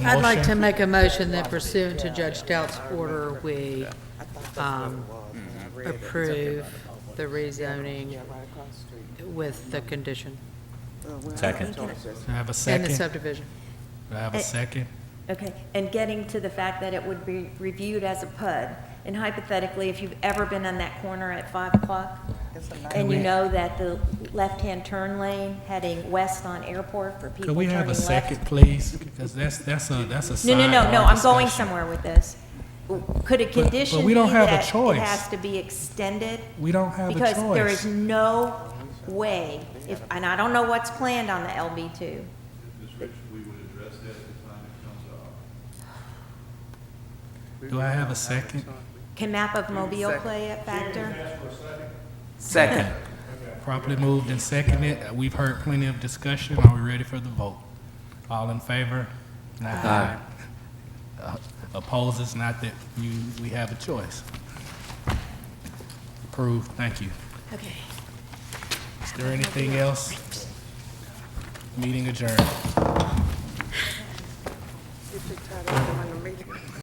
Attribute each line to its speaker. Speaker 1: I'd like to
Speaker 2: Motion.
Speaker 1: make a motion that pursuant to Judge Stout's order, we um, approve the rezoning with the condition
Speaker 3: Second.
Speaker 2: I have a
Speaker 1: and the
Speaker 2: second.
Speaker 1: subdivision.
Speaker 2: I have a
Speaker 4: Eh,
Speaker 2: second.
Speaker 4: Okay, and getting to the fact that it would be reviewed as a PUD, and hypothetically, if you've ever been on that corner at five o'clock, and you know that the left-hand turn lane heading west on Airport for people
Speaker 2: Could we
Speaker 4: turning
Speaker 2: have a
Speaker 4: left.
Speaker 2: second, please? Because that's, that's a, that's a
Speaker 4: No, no, no, no,
Speaker 2: sidebar
Speaker 4: I'm going
Speaker 2: discussion.
Speaker 4: somewhere with this. Could a
Speaker 2: but
Speaker 4: condition
Speaker 2: we
Speaker 4: be
Speaker 2: don't have a
Speaker 4: that it
Speaker 2: choice.
Speaker 4: has to be extended?
Speaker 2: We don't have a
Speaker 4: Because there is
Speaker 2: choice.
Speaker 4: no way, if, and I don't know what's planned on the LB two.
Speaker 5: Ms. Rich, we would address that at the time it comes up.
Speaker 2: Do I have a second?
Speaker 4: Can map of Mobile play a factor?
Speaker 6: Second.
Speaker 2: Properly moved and seconded. Uh, We've heard plenty of discussion. Are we ready for the vote? All in favor? Aye. Uh, Opposes, not that you, we have a choice. Approved, thank you.
Speaker 4: Okay.
Speaker 2: Is there anything else? Meeting adjourned.